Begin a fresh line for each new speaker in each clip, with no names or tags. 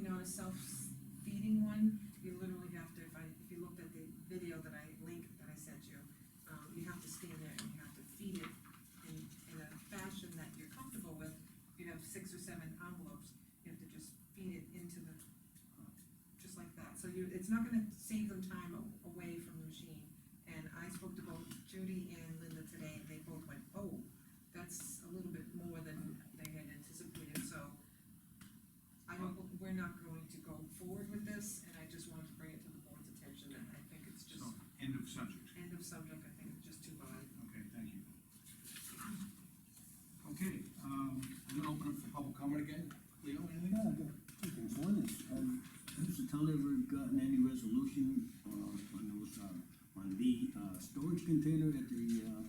um, on a self-feeding one, you literally have to, if I, if you looked at the video that I linked, that I sent you, um, you have to stand there and you have to feed it in, in a fashion that you're comfortable with. If you have six or seven envelopes, you have to just feed it into the, uh, just like that. So you, it's not gonna save them time a- away from the machine. And I spoke to both Judy and Linda today, and they both went, oh, that's a little bit more than they had anticipated, so I don't, we're not going to go forward with this, and I just wanted to bring it to the board's attention, that I think it's just
So, end of subject.
end of subject, I think it's just too bad.
Okay, thank you. Okay, um, I'm gonna open up for public comment again. Leo, anything?
Yeah, I got two things. One is, um, has the town ever gotten any resolution, uh, on those, uh, on the, uh, storage container at the, uh,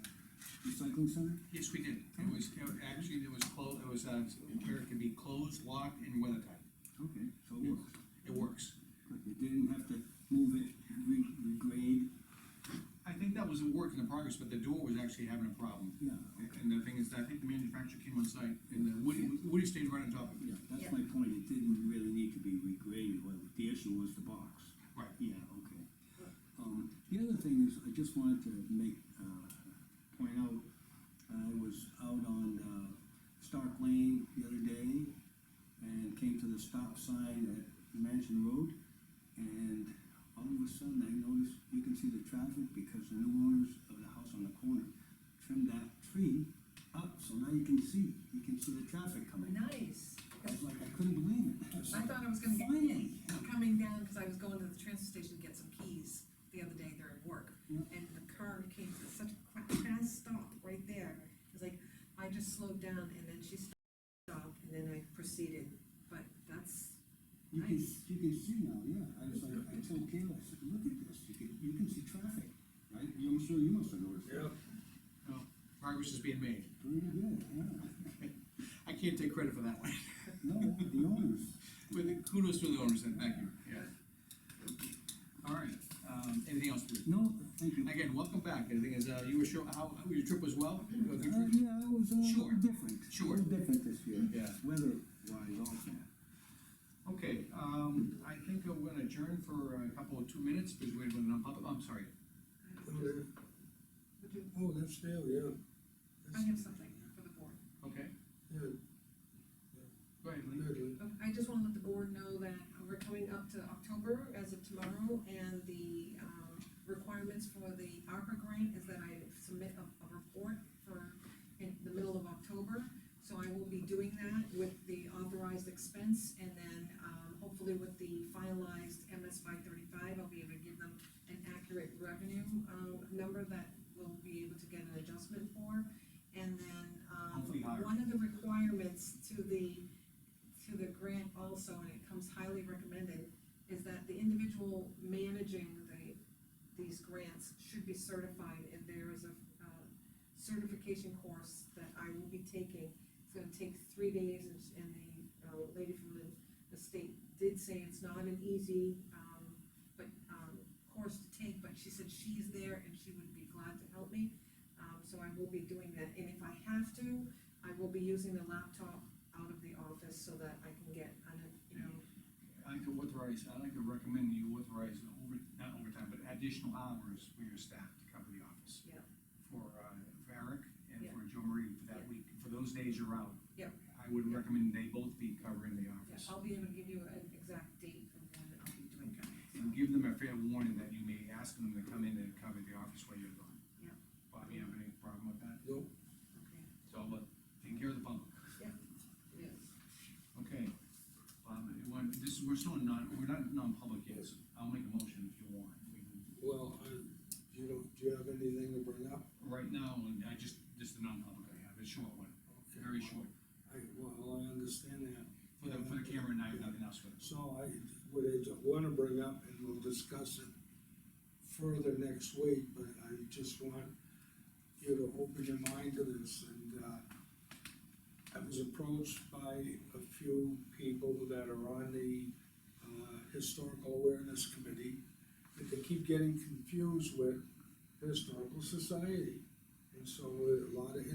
recycling center?
Yes, we did. It was, it- actually, there was clo, it was, uh, where it could be closed, locked, and weather tight.
Okay, so it works.
It works.
Good. You didn't have to move it, re- regrade?
I think that was a work in the progress, but the door was actually having a problem.
Yeah,
And the thing is, I think the manufacturer came on site, and the Woody, Woody stayed right on top of it.
Yeah, that's my point. It didn't really need to be regraded. Well, the issue was the box.
Right.
Yeah, okay. Um, the other thing is, I just wanted to make, uh, point out, I was out on, uh, Stark Lane the other day, and came to the stop sign at Mansion Road, and all of a sudden, I noticed, you can see the traffic, because the new owners of the house on the corner trimmed that tree up, so now you can see, you can see the traffic coming.
Nice,
I was like, I couldn't believe it.
I thought I was gonna get
Finally.
in, coming down, cause I was going to the transfer station to get some keys the other day during work.
Yeah.
And the car came to such a fa- fast stop right there, it was like, I just slowed down and then she stopped, and then I proceeded, but that's
You can,
Nice.
you can see now, yeah, I was like, I told Kayla, I said, look at this, you can, you can see traffic, right? I'm sure you must have noticed. Yeah.
Progress is being made.
Pretty good, yeah,
I can't take credit for that one.
no, the owners,
But kudos to the owners, and thank you, yeah. All right, um, anything else, please?
no, thank you.
Again, welcome back, and the thing is, uh, you were sure, how, how- your trip was well? You had a good
Uh,
trip?
yeah, it was a little
Sure.
different. A
Sure.
little different this year.
Yeah.
Weather-wise also.
Okay, um, I think I'm gonna adjourn for a couple of two minutes, because we're going to public, I'm sorry.
Oh, that's Dale, yeah.
I have something for the board.
Okay,
Yeah,
go ahead, Lee.
Natalie.
I just wanna let the board know that we're coming up to October as of tomorrow, and the, um, requirements for the ARPA grant is that I submit a, a report for, in the middle of October. So I will be doing that with the authorized expense, and then, um, hopefully with the finalized MS five thirty-five, I'll be able to give them an accurate revenue, um, number that we'll be able to get an adjustment for. And then, um,
Hopefully higher.
one of the requirements to the, to the grant also, and it comes highly recommended, is that the individual managing the, these grants should be certified, and there is a, uh, certification course that I will be taking. It's gonna take three days, and, and the, uh, lady from the, the state did say it's not an easy, um, but, um, course to take, but she said she's there and she would be glad to help me. Um, so I will be doing that, and if I have to, I will be using the laptop out of the office so that I can get, an you know,
I like to authorize, I like to recommend you authorize over, not overtime, but additional hours for your staff to cover the office.
Yeah.
For, uh, for Eric and
Yeah.
for Joe Marie for that
Yeah.
week, for those days you're out.
Yeah.
I would recommend they both be covering the
yeah,
office.
I'll be able to give you an exact date of when I'll be doing that.
And give them a fair warning that you may ask them to come in and cover the office while you're gone.
Yeah.
Bobby, have any problem with that?
Nope.
Okay,
It's all about taking care of the public.
yes.
Okay. Bob, you want- this, we're still in non, we're not in non-public yet, so I'll make a motion if you want. We can-
Well, I, you don't, do you have anything to bring up?
Right now, and I just, this is the non-public I have, it's a short one,
Okay,
very short.
I, well, I understand that.
For the, for the camera and I have nothing else for this.
So I, what I don't wanna bring up, and we'll discuss it further next week, but I just want you to open your mind to this, and, uh, I was approached by a few people that are on the, uh, Historical Awareness Committee, that they keep getting confused with Historical Society. And so a lot of